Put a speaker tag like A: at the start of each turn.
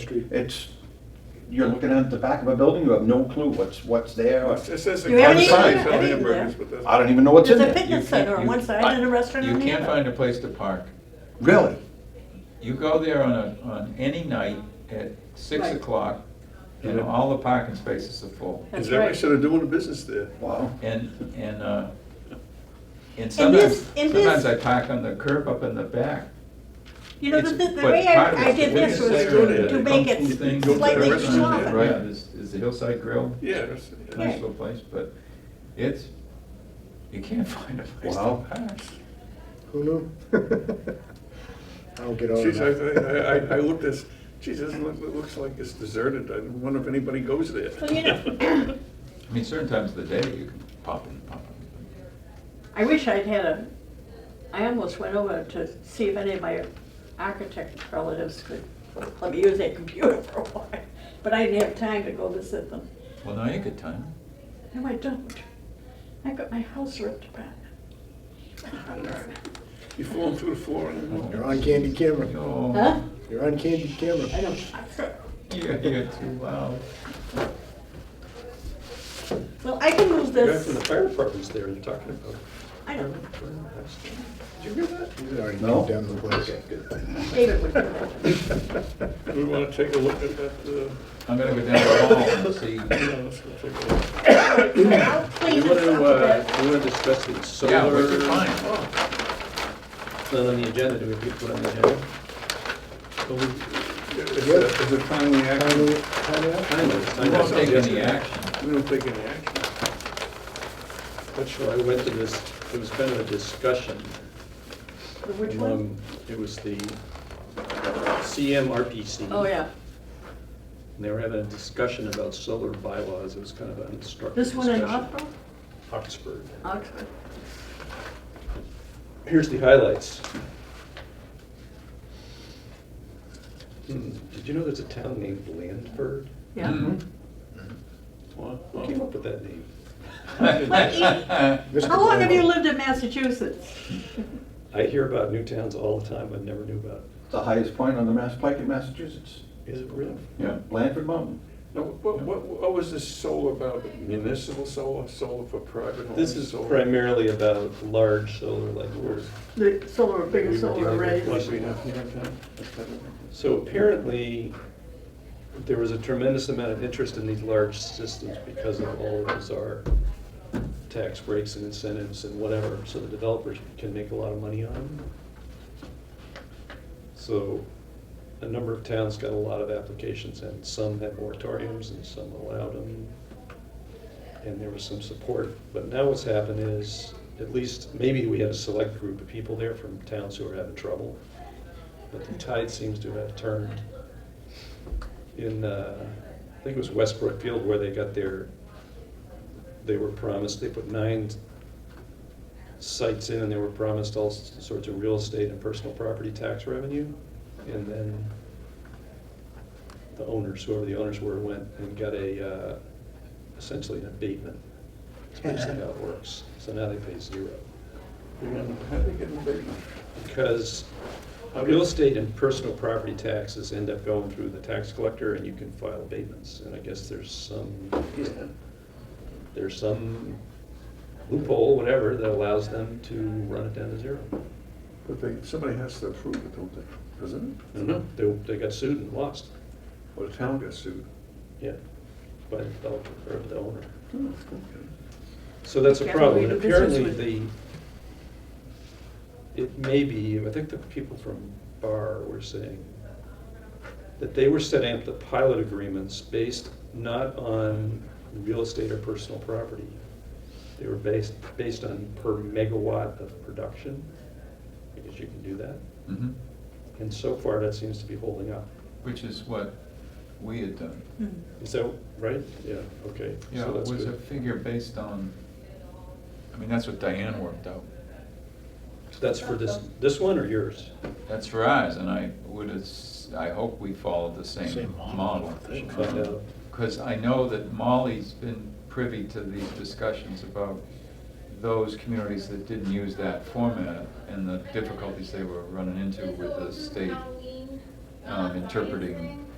A: Street.
B: It's, you're looking at the back of a building, you have no clue what's, what's there.
C: It says
D: You haven't
C: the
B: eaten
C: signs
D: yet.
C: on
D: Have you eaten
C: hamburgers,
D: yet?
C: but that's.
B: I don't even know what's in
D: There's a
B: there.
D: picnic center on one side and a restaurant on the other.
E: You can't find a place to park.
B: Really?
E: You go there on a, on any night at six
D: Right.
E: o'clock, and
A: Yeah.
E: all the parking spaces are full.
D: That's
C: Is that why
D: right.
C: should have doing a business there?
B: Wow.
E: And, and, uh, and
D: this-
E: sometimes,
D: and this-
E: sometimes I park on the curb up in the back.
D: You know, the,
E: It's-
D: the the
E: but
D: way
E: part of
D: I, I
E: it's the
D: did this
E: Williams
D: was
E: Center
D: to
E: and
D: to
E: the
D: make
E: Kung Fu
D: it
E: things and
C: slightly
E: the restaurant
C: smaller.
E: there, Right, is, is the Hillside Grill,
C: Yeah, that's-
E: nice
D: Yeah.
E: little place, but it's, you can't find a place to
B: Wow.
E: park.
A: Who knew? I don't get over
C: Geez, I,
A: that.
C: I, I- I looked this, geez, this look- it looks like it's deserted, I wonder if anybody goes there.
D: Well, you know-
E: I mean, certain times of the day, you can pop in, pop in.
D: I wish I'd had a, I almost went over to see if any of my architect relatives could let me use their computer for a while, but I didn't have time to go visit them.
E: Well, now you could time.
D: No, I don't. I got my house ripped apart.
C: You fall through the floor and.
A: You're on candy camera.
E: Oh,
D: Huh?
A: You're on candy camera.
D: I don't.
E: You're, you're too loud.
D: Well, I can move
C: The guy from the
D: this.
C: fire department's there, you're talking about.
D: I know.
C: Did you hear that?
A: He's already
B: No?
A: kicked down the place.
D: David would do it.
C: We wanna take a look at that, uh,
E: I'm gonna go down the hall and see.
C: yeah, let's go take a look.
D: I'll clean
F: You want
D: this up
F: to,
D: a bit.
F: uh, you want to discuss the solar?
E: Yeah, what's your plan?
F: It's not on the agenda, do we put it on the agenda? Well, we-
C: Is it- is it timely action?
A: Tiny- tiny house?
F: kind of,
E: We
F: kind
E: won't
F: of
E: take any
F: suggested.
E: action.
C: We don't take any action.
F: Not sure, I went to this, it was kind of a discussion.
D: Which one?
F: among- It was the CMRPC.
D: Oh, yeah.
F: And they were having a discussion about solar bylaws, it was kind of an instructive
D: This one in
F: discussion.
D: Oxford?
F: Oxford.
D: Oxford.
F: Here's the highlights. Hmm, Did you know there's a town named Blandford?
D: Yeah.
B: Mm-hmm.
F: Who came up with that name?
A: Mr.
D: How long have you
A: Blanco.
D: lived in Massachusetts?
F: I hear about new towns all the time, but never knew about
B: It's the highest point on the Mass Pike in Massachusetts.
F: it. Is it real?
B: Yeah, Blandford Mountain.
C: Now, what, what, what was this solar about, municipal solar, solar for private homes?
F: This is
C: solar-
F: primarily about large solar, like we're,
D: The solar, bigger solar array.
C: Like we have here in town?
F: so apparently, there was a tremendous amount of interest in these large systems because of all of bizarre tax breaks and incentives and whatever, so the developers can make a lot of money on them. So, a number of towns got a lot of applications, and some had moratoriums, and some allowed them. and there was some support. But now what's happened is, at least, maybe we had a select group of people there from towns who were having trouble, but the tide seems to have turned. In, uh, I think it was West Brookfield where they got their, they were promised, they put nine sites in and they were promised all s- sorts of real estate and personal property tax revenue. And then the owners, whoever the owners were, went and got a, uh, essentially an abatement. That's basically how it works. So now they pay zero.
C: How they get in there?
F: Because real estate and personal property taxes end up going through the tax collector and you can file abatements. And I guess there's some, there's some loophole, whatever, that allows them to run it down to zero.
C: But they, somebody has to approve it, don't they? Doesn't
F: I
C: it?
F: don't know, they, they got sued and lost,
C: Or the town gets sued.
F: yeah, by the developer or the owner.
C: Okay.
F: So that's a
D: Careful who
F: problem,
D: you
F: and
D: do business
F: apparently
D: with.
F: the, it may be, I think the people from Barr were saying that they were setting up the pilot agreements based not on real estate or personal property. They were based, based on per megawatt of production, because you can do that.
E: Mhm.
F: And so far, that seems to be holding up.
E: Which is what we had done.
D: Hmm.
F: Is that right? Yeah, okay. So
E: Yeah, it
F: that's
E: was a
F: good.
E: figure based on, I mean, that's what Diane worked out.
F: That's for this, this one or yours?
E: That's Verizon, I would have, I hope we followed the same
A: Same model,
E: model.
A: I think.
F: Find out.
E: Because I know that Molly's been privy to these discussions about those communities that didn't use that format and the difficulties they were running into with the state um, interpreting